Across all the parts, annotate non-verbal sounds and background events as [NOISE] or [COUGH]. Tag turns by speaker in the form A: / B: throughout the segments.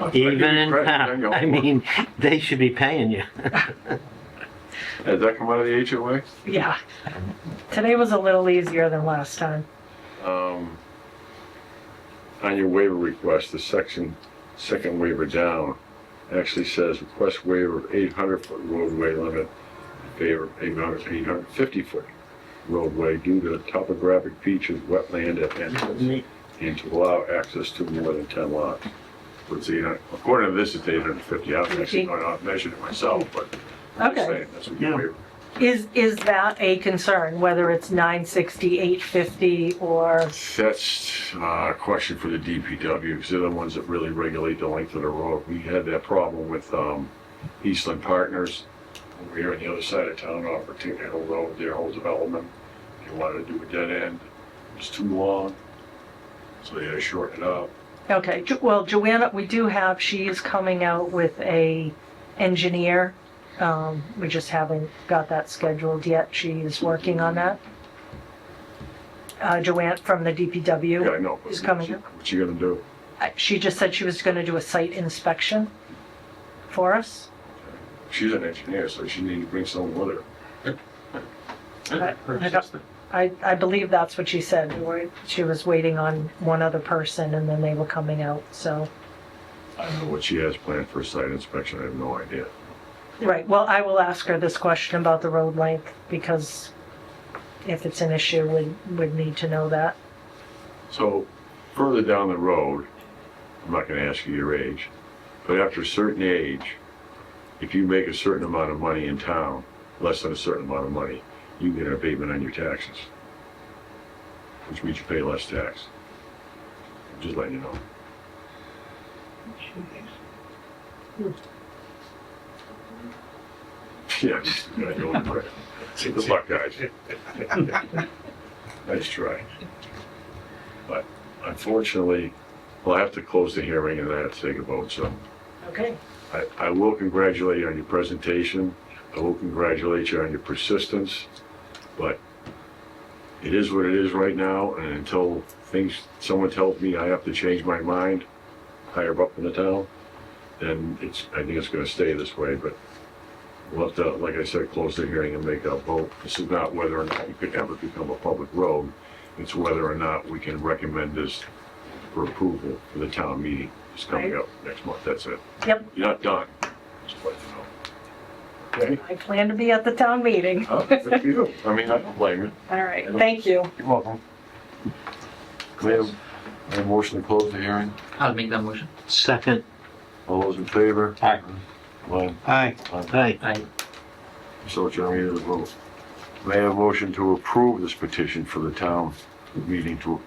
A: I give you
B: Even in
A: credit,
B: town,
A: you
B: I
A: know.
B: mean, they should be paying you.
A: Did that come out of the HOA?
C: Yeah. Today was a little easier than last time.
A: Um, On your waiver request, the section, second waiver down, actually says request waiver of 800-foot roadway limit in favor of 850-foot roadway due to the topographic features, wetland at entrance, and to allow access to more than 10 lots. Let's see, uh, according to this, it's 850. I haven't actually gone out and measured it myself, but I'm just
C: Okay.
A: saying, that's what your
B: Yeah.
A: waiver.
C: Is, is that a concern, whether it's 960, 850, or,
A: That's uh, a question for the DPW, because they're the ones that really regulate the length of the road. We had that problem with um, Eastland Partners, over here on the other side of town, off of Tinker Hill Road, their whole development. They wanted to do a dead end, it was too long, so they had to shorten it up.
C: okay, Jo- well, Joanna, we do have, she is coming out with a engineer. Um, We just haven't got that scheduled yet. She is working on that. Uh, Joanne from the
A: Yeah,
C: DPW.
A: I know. but
C: It's coming up.
A: What you gonna do?
C: Uh, She just said she was going to do a site inspection for us.
A: She's an engineer, so she needed to bring someone with her.
C: I- I don't- I, I believe that's what she said. or She was waiting on one other person and then they were coming out, so.
A: I don't know what she has planned for a site inspection, I have no idea.
C: Right, well, I will ask her this question about the road length because if it's an issue, we would need to know that.
A: So further down the road, I'm not gonna ask you your age, but after a certain age, if you make a certain amount of money in town, less than a certain amount of money, you get an abatement on your taxes. Which means you pay less tax. Just letting you know. [LAUGHS] Yeah, just, I know, right. Good luck, guys. Nice try. But unfortunately, we'll have to close the hearing and then have to take a vote, so
C: Okay.
A: I, I will congratulate you on your presentation. I will congratulate you on your persistence, but it is what it is right now, and until things, someone tells me I have to change my mind higher up in the town, then it's, I think it's gonna stay this way, but we'll have to, like I said, close the hearing and make a vote. This is not whether or not you could ever become a public road, it's whether or not we can recommend this for approval for the town meeting that's coming up next month, that's it.
C: Yep,
A: You're not done. Just let you know. Okay?
C: I plan to be at the town meeting.
A: [LAUGHS] Oh, good for you. I mean, I don't blame you.
C: [LAUGHS] All right, thank you.
A: You're welcome. Can we have a motion to close the hearing?
D: I'll make that motion.
B: Second,
A: All those in favor?
E: Aye.
A: Glenn,
E: Aye.
B: hey,
D: I
A: so it's your meeting to vote. May I have a motion to approve this petition for the town meeting to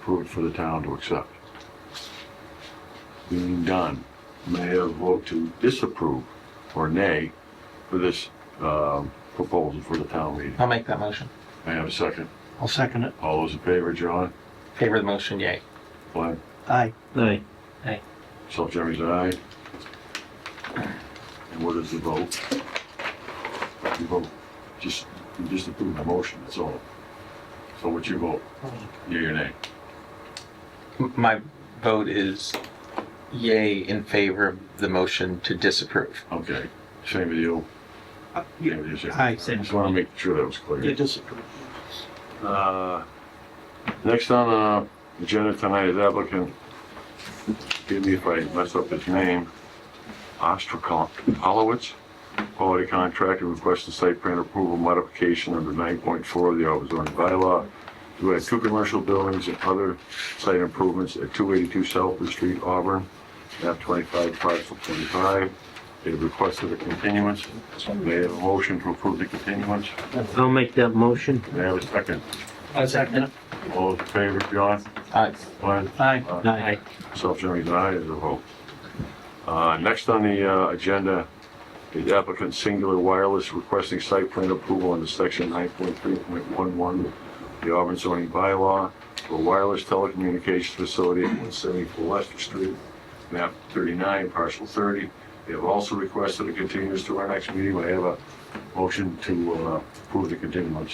A: approve it for the town to accept? Being done, may I have a vote to disapprove or nay for this, um, proposal for the town meeting?
E: I'll make that motion.
A: May I have a second?
E: I'll second it.
A: All those in favor, John?
E: Favor the motion, yay.
A: Glenn?
E: Aye.
B: hey,
A: Myself, Jeremy's an aye. And what is the vote? You vote, just, you just approve the motion, that's all. So what's your vote? Yea or nay?
E: M- My vote is yay in favor of the motion to disapprove.
A: Okay, same with you.
E: Uh,
A: Same with you, sir.
E: Aye.
A: Just wanna make sure that was clear.
E: disapprove.
A: Uh, Next on the agenda tonight is applicant, forgive me if I mess up his name, Ostrakolowitz, quality contractor requesting site plan approval modification under 9.4 of the Auburn zoning bylaw to add two commercial buildings and other site improvements at 282 Southwood Street, Auburn, map 25, parcel 25. They requested a continuance. They have a motion to approve the continuance.
B: I'll make that motion.
A: They have a second.
E: I'll second it.
A: All those in favor, John?
E: Aye.
A: Glenn?
E: Aye.
B: Aye.
A: Myself, Jeremy's an aye, as a vote. Uh, Next on the uh, agenda is applicant Singular Wireless requesting site plan approval under section 9.3.11 of the Auburn zoning bylaw for wireless telecommunications facility at 174 Leicester Street, map 39, parcel 30. They have also requested a continuance to our next meeting. May I have a motion to uh, approve the continuance?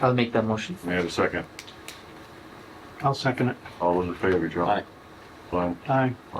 D: I'll make that motion.
A: May I have a second?
E: I'll second it.
A: All those in favor, John?
E: Aye.
A: Glenn?
E: Aye.